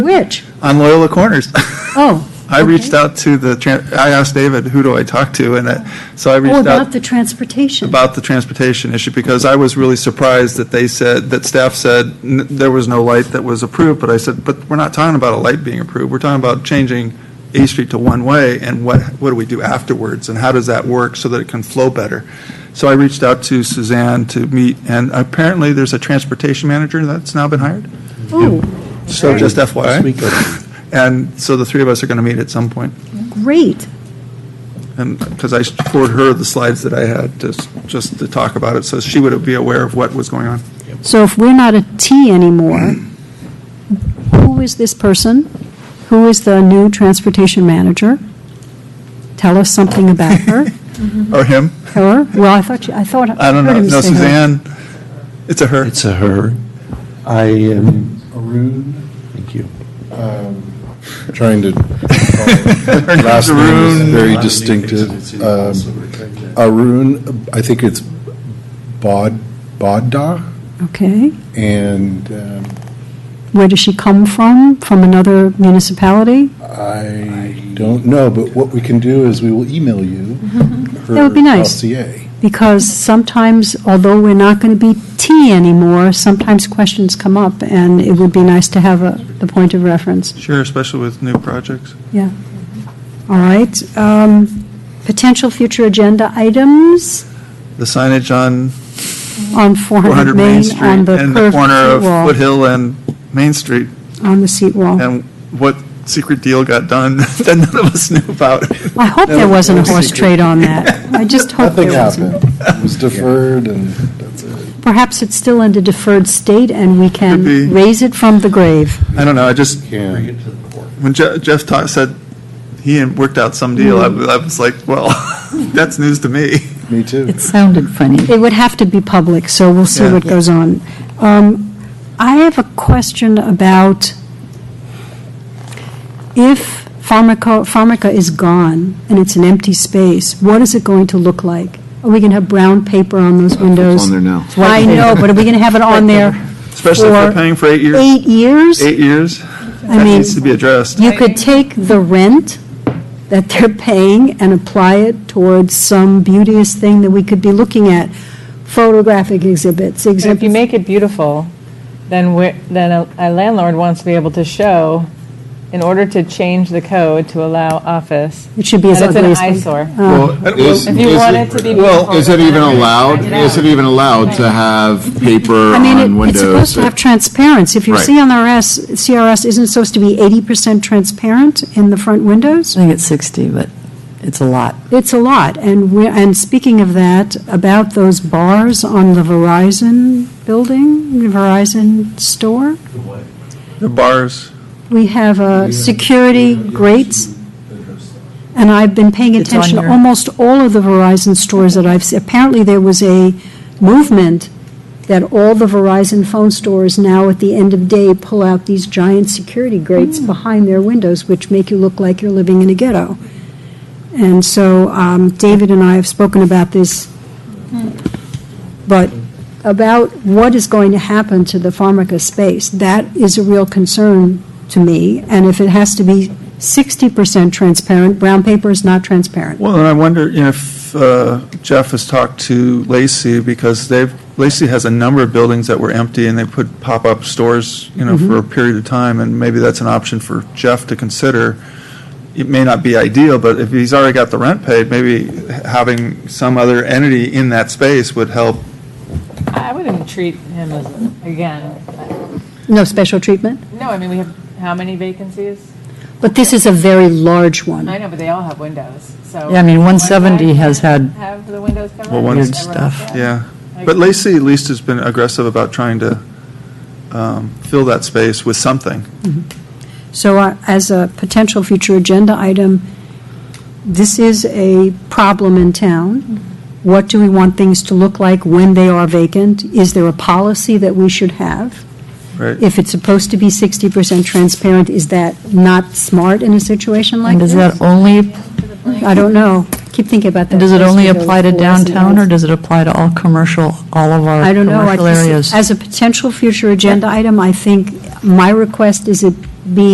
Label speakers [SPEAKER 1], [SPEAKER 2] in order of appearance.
[SPEAKER 1] Which?
[SPEAKER 2] on Loyola Corners.
[SPEAKER 1] Oh.
[SPEAKER 2] I reached
[SPEAKER 1] okay.
[SPEAKER 2] out to the, tran- I asked David, who do I talk to? And I- so I
[SPEAKER 1] Oh,
[SPEAKER 2] reached
[SPEAKER 1] about
[SPEAKER 2] out
[SPEAKER 1] the transportation.
[SPEAKER 2] about the transportation issue because I was really surprised that they said, that staff said n- there was no light that was approved. But I said, but we're not talking about a light being approved. We're talking about changing A Street to one-way and what, what do we do afterwards? And how does that work so that it can flow better? So I reached out to Suzanne to meet, and apparently there's a transportation manager that's now been hired.
[SPEAKER 1] Oh,
[SPEAKER 2] So just
[SPEAKER 3] This
[SPEAKER 2] FYI.
[SPEAKER 3] week or-
[SPEAKER 2] And so the three of us are going to meet at some point.
[SPEAKER 1] great.
[SPEAKER 2] And, because I forwarded her the slides that I had, just, just to talk about it, so she would be aware of what was going on.
[SPEAKER 1] So if we're not a T anymore, who is this person? Who is the new transportation manager? Tell us something about her,
[SPEAKER 2] Or him,
[SPEAKER 1] her? Well, I thought, you- I thought.
[SPEAKER 2] I don't
[SPEAKER 1] heard
[SPEAKER 2] know,
[SPEAKER 1] him
[SPEAKER 2] no,
[SPEAKER 1] say her.
[SPEAKER 2] Suzanne, it's a her.
[SPEAKER 3] It's a her. I am,
[SPEAKER 4] Arun,
[SPEAKER 3] thank you.
[SPEAKER 4] Um, trying to, last name is
[SPEAKER 2] Arun,
[SPEAKER 4] very distinctive. Um, Arun, I think it's Bod, Bodda,
[SPEAKER 1] Okay.
[SPEAKER 4] and um,
[SPEAKER 1] Where does she come from? From another municipality?
[SPEAKER 4] I don't know, but what we can do is we will email you her
[SPEAKER 1] Mm-hmm. That would be nice.
[SPEAKER 4] LCA.
[SPEAKER 1] Because sometimes, although we're not going to be T anymore, sometimes questions come up, and it would be nice to have a, the point of reference.
[SPEAKER 2] Sure, especially with new projects.
[SPEAKER 1] Yeah. All right. Um, Potential future agenda items
[SPEAKER 2] The signage on
[SPEAKER 1] on 400
[SPEAKER 2] 400 Main
[SPEAKER 1] Main,
[SPEAKER 2] Street
[SPEAKER 1] on the
[SPEAKER 2] and the
[SPEAKER 1] curved
[SPEAKER 2] corner of
[SPEAKER 1] seat wall.
[SPEAKER 2] Foothill and Main Street,
[SPEAKER 1] On the seat wall.
[SPEAKER 2] and what secret deal got done that none of us knew about.
[SPEAKER 1] I hope
[SPEAKER 2] That
[SPEAKER 1] there
[SPEAKER 2] was
[SPEAKER 1] wasn't a
[SPEAKER 2] no
[SPEAKER 1] horse
[SPEAKER 2] secret.
[SPEAKER 1] trade on that. I just hope
[SPEAKER 4] Nothing
[SPEAKER 1] there wasn't.
[SPEAKER 4] happened. It was deferred, and that's it.
[SPEAKER 1] Perhaps it's still in a deferred state, and we
[SPEAKER 2] Could be.
[SPEAKER 1] can raise it from the grave.
[SPEAKER 2] I don't know, I just,
[SPEAKER 4] Yeah.
[SPEAKER 2] when Je- Jeff ta- said he had worked out some deal,
[SPEAKER 1] Hmm.
[SPEAKER 2] I I was like, well, that's news to me.
[SPEAKER 4] Me too.
[SPEAKER 5] It sounded funny.
[SPEAKER 1] It would have to be public, so we'll see
[SPEAKER 2] Yeah.
[SPEAKER 1] what goes on. Um, I have a question about if pharmaco, pharmaca is gone and it's an empty space, what is it going to look like? Are we going to have brown paper on those windows?
[SPEAKER 6] on there now.
[SPEAKER 1] I know, but are we going to have it on there
[SPEAKER 2] Especially if we're paying for eight years.
[SPEAKER 1] eight years?
[SPEAKER 2] Eight
[SPEAKER 1] I
[SPEAKER 2] years? That
[SPEAKER 1] mean,
[SPEAKER 2] needs to be addressed.
[SPEAKER 1] you could take the rent that they're paying and apply it towards some beauteous thing that we could be looking at, photographic exhibits,
[SPEAKER 7] And if you
[SPEAKER 1] exhibits
[SPEAKER 7] make it beautiful, then we then a- a landlord wants to be able to show, in order to change the code to allow office.
[SPEAKER 1] It should be as
[SPEAKER 7] that
[SPEAKER 1] ugly as- Uh,
[SPEAKER 7] It's an eyesore.
[SPEAKER 6] Is-
[SPEAKER 7] If you
[SPEAKER 6] is
[SPEAKER 7] want it to be
[SPEAKER 6] Well,
[SPEAKER 7] beautiful.
[SPEAKER 6] is it even allowed, is it even allowed to have paper
[SPEAKER 1] I
[SPEAKER 6] on
[SPEAKER 1] mean, it- it's supposed
[SPEAKER 6] windows?
[SPEAKER 1] to have transparency. If your
[SPEAKER 6] Right.
[SPEAKER 1] CRS, CRS isn't supposed to be 80% transparent in the front windows?
[SPEAKER 5] I think it's 60, but it's a lot.
[SPEAKER 1] It's a lot. And we, and speaking of that, about those bars on the Verizon building, the Verizon store,
[SPEAKER 2] The bars,
[SPEAKER 1] we have a security grates. And I've been paying
[SPEAKER 5] It's on
[SPEAKER 1] attention to
[SPEAKER 5] your-
[SPEAKER 1] almost all of the Verizon stores that I've, se- apparently there was a movement that all the Verizon phone stores now at the end of day pull out these giant security grates
[SPEAKER 5] Mm.
[SPEAKER 1] behind their windows, which make you look like you're living in a ghetto. And so um, David and I have spoken about this,
[SPEAKER 5] Mm.
[SPEAKER 1] but about what is going to happen to the Pharmaca space, that is a real concern to me. And if it has to be 60% transparent, brown paper is not transparent.
[SPEAKER 2] well, and I wonder if uh, Jeff has talked to Lacey, because they've, Lacey has a number of buildings that were empty, and they put pop-up stores, you know, for a
[SPEAKER 1] Mm-hmm.
[SPEAKER 2] period of time, and maybe that's an option for Jeff to consider. It may not be ideal, but if he's already got the rent paid, maybe having some other entity in that space would help.
[SPEAKER 7] I wouldn't treat him as, again,
[SPEAKER 1] No special treatment?
[SPEAKER 7] no, I mean, we have how many vacancies?
[SPEAKER 1] But this is a very large one.
[SPEAKER 7] I know, but they all have windows, so.
[SPEAKER 5] Yeah, I mean,
[SPEAKER 7] one
[SPEAKER 5] 170
[SPEAKER 7] guy
[SPEAKER 5] has
[SPEAKER 7] can't
[SPEAKER 5] had
[SPEAKER 7] Have the windows covered.
[SPEAKER 2] Well, one-
[SPEAKER 5] Weird
[SPEAKER 7] Everyone
[SPEAKER 5] stuff.
[SPEAKER 7] else can.
[SPEAKER 2] Yeah, but Lacey at least has been aggressive about trying to um, fill that space with something.
[SPEAKER 1] So uh, as a potential future agenda item, this is a problem in town. What do we want things to look like when they are vacant? Is there a policy that we should have?
[SPEAKER 2] Right.
[SPEAKER 1] If it's supposed to be 60% transparent, is that not smart in a situation like
[SPEAKER 5] And does
[SPEAKER 1] this?
[SPEAKER 5] that only,
[SPEAKER 1] I don't know. Keep thinking about that.
[SPEAKER 5] and does it only apply to
[SPEAKER 1] Those windows,
[SPEAKER 5] downtown, or
[SPEAKER 1] those-
[SPEAKER 5] does it apply to all commercial, all of our
[SPEAKER 1] I don't know. I
[SPEAKER 5] commercial
[SPEAKER 1] just-
[SPEAKER 5] areas?
[SPEAKER 1] As a potential future agenda item, I think my request is it be